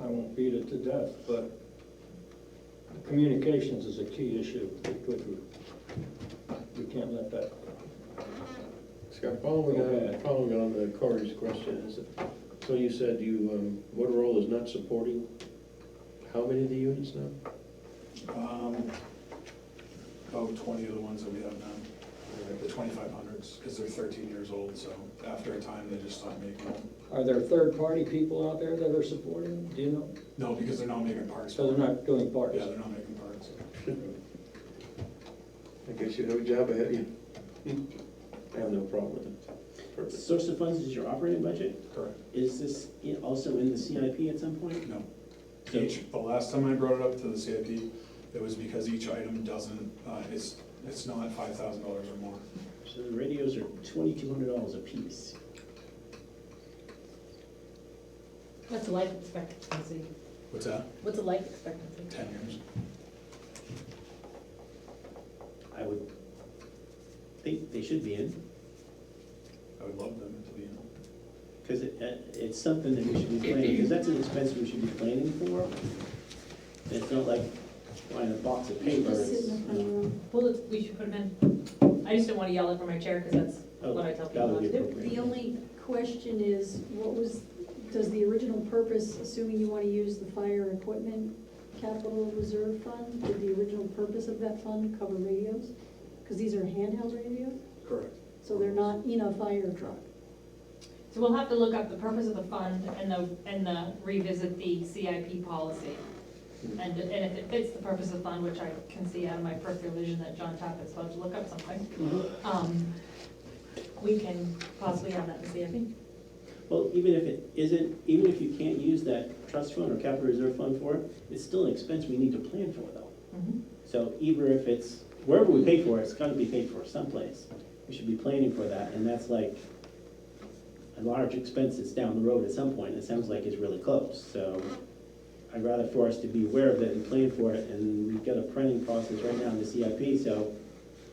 I won't beat it to death, but communications is a key issue. because we- We can't let that, Scott, following Okay. on, following on to Corey's question, is, so you said you, um, Motorola's not supporting how many of the units now? Um, About twenty of the ones that we have now, the twenty-five hundreds, because they're thirteen years old, so after a time, they just stop making them. are there third-party people out there that are supporting them? Do you know? No, because they're not making parts. So they're not doing parts? Yeah, they're not making parts. I guess you have a job ahead of you. I have no problem with it. Perfect. Source of funds is your operating budget. Correct. Is this i- also in the CIP at some point? No. Each, the last time I brought it up to the CIP, it was because each item doesn't, uh, it's, it's not five thousand dollars or more. So the radios are twenty-two hundred dollars a piece. What's the life expectancy? What's that? What's the life expectancy? Ten years? I would think they should be in, I would love them to be, in. because it, uh, it's something that we should be planning, because that's an expense we should be planning for. It's not like buying a box of paper. it's- Well, let's- we should put them in. I just don't want to yell it from my chair because Oh, that's what I tell that people. would not be to do. appropriate. The only question is, what was, does the original purpose, assuming you want to use the fire equipment capital reserve fund, did the original purpose of that fund cover radios? Because these are handheld radios, correct. so they're not in a fire truck. So we'll have to look up the purpose of the fund and the, and the revisit the CIP policy. Hmm. And, and if it fits the purpose of the fund, which I can see out of my peripheral vision that John Tappett's about to look up something, Mhm. um, we can possibly have that in CIP. Well, even if it isn't, even if you can't use that trust fund or capital reserve fund for it, it's still an expense we need to plan for though. Mhm. So either if it's, wherever we pay for it, it's gotta be paid for someplace. We should be planning for that, and that's like a large expense that's down the road at some point, it sounds like it's really close, so I'd rather for us to be aware of it and plan for it, and we've got a planning process right now in the CIP, so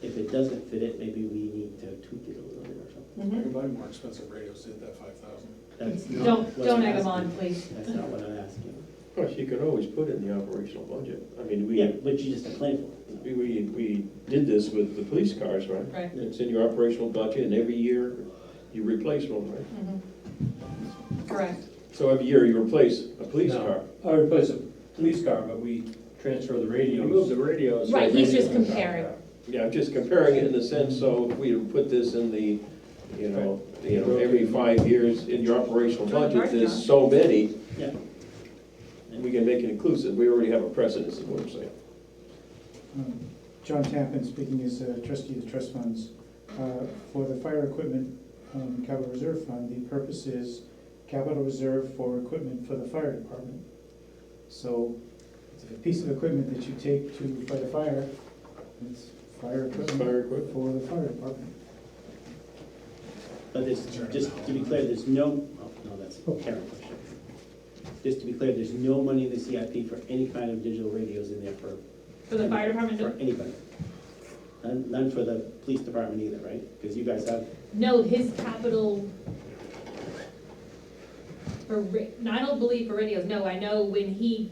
if it doesn't fit it, maybe we need to tweak it a little bit or something. I Mhm. can buy more expensive radios, did that five thousand. That's not Don't, what don't I'm egg them on, asking. please. That's not what I'm asking. Of course, you could always put it in the operational budget. I mean, Yeah, we, but you just have to plan for it. we, we we did this with the police cars, right? Right. It's in your operational budget and every year you replace one, right? Mhm. Mm-hmm. Correct. So every year you replace a police No. car. I replace a police car, but we transfer the You move radios. the radios. so Right, he's just radios- comparing. Yeah, I'm just comparing it in the sense, so if we put this in the, you know, you know, every five years in your operational budget, there's so many, Yeah. we can make it inclusive, we already have a precedence, is what I'm saying. Um, John Tappan, speaking as a trustee of the trust funds. Uh, For the fire equipment um, capital reserve fund, the purpose is capital reserve for equipment for the fire department. So it's a piece of equipment that you take to fight a fire, it's fire equipment Fire equipment, for the fire department. But there's, just to be clear, there's no, oh, no, that's a Karen question. Just to be clear, there's no money in the CIP for any kind of digital radios in there for, For the fire department, for no- anybody. None, none for the police department either, right? Because you guys have, no, his capital. For, ra- no, I don't believe for radios, no, I know when he,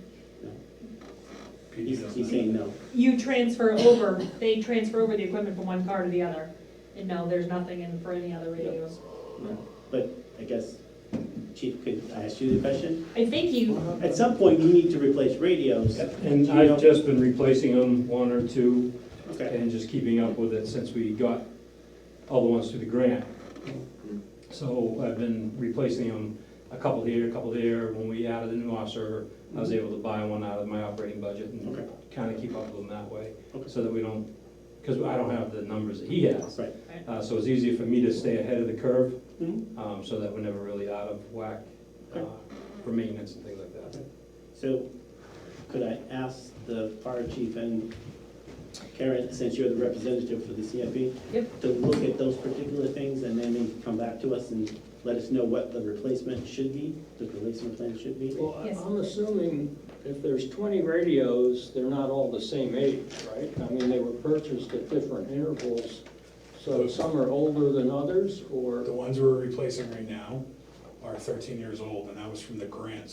he's, he's saying no. you transfer over, they transfer over the equipment from one car to the other. And no, there's nothing in for any other radios. But I guess, Chief, could I ask you the question? I think you, At some point, we need to replace radios. And I've just been replacing them, one or two, Okay, and just keeping up with it since we got all the ones through the grant. So I've been replacing them, a couple here, a couple there. When we added a new officer, I was able to buy one out of my operating budget Okay. and kind of keep up with them that way. Okay. So that we don't, because I don't have the numbers that he has. right. Uh, So it's easier for me to stay ahead of the curve Mhm. um, so that we're never really out of whack uh, Okay. for maintenance and things like that. So, could I ask the fire chief and Karen, since you're the representative for the CFP? Yep. To look at those particular things and then maybe come back to us and let us know what the replacement should be, the replacement plan should be? Well, I- Yes. I'm assuming if there's twenty radios, they're not all the same age, right? I mean, they were purchased at different intervals, so some are older than others, or? The ones we're replacing right now are thirteen years old, and that was from the grant,